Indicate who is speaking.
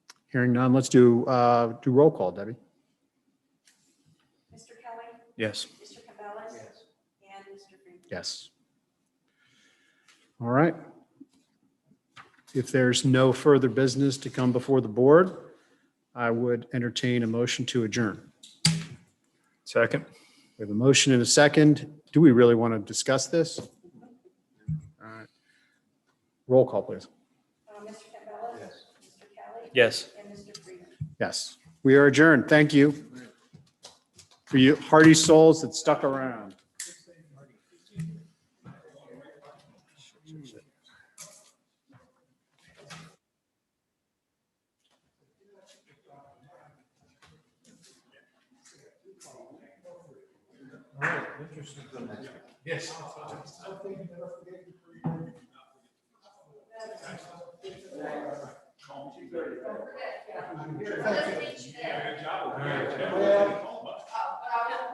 Speaker 1: Hearing none, let's do, uh, do roll call, Debbie.
Speaker 2: Mr. Kelly,
Speaker 1: Yes.
Speaker 2: Mr. Campbell, and Mr. Freeman.
Speaker 1: Yes. All right. If there's no further business to come before the board, I would entertain a motion to adjourn.
Speaker 3: Second.
Speaker 1: We have a motion and a second. Do we really want to discuss this? All right. Roll call, please.
Speaker 2: Uh, Mr. Campbell, Mr. Kelly,
Speaker 3: Yes.
Speaker 2: and Mr. Freeman.
Speaker 1: Yes, we are adjourned. Thank you. For you hardy souls that stuck around.
Speaker 4: All